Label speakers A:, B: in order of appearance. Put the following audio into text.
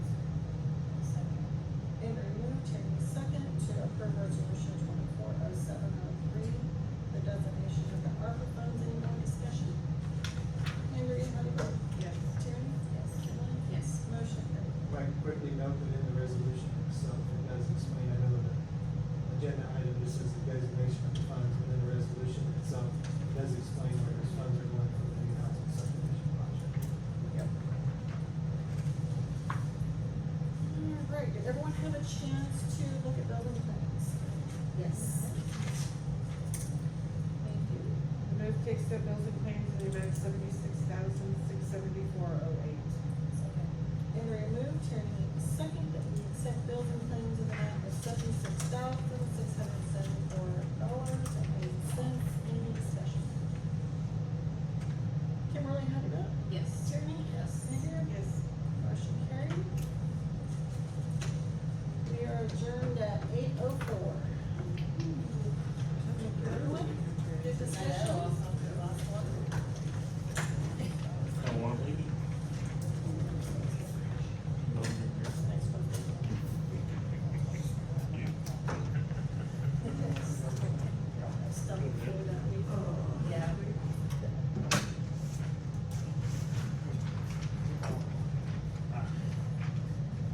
A: oh everyone have a chance to look at building plans?
B: Yes.
A: Thank you.
C: I move to accept bills and claims in the amount of seventy-six thousand, six seventy-four oh eight.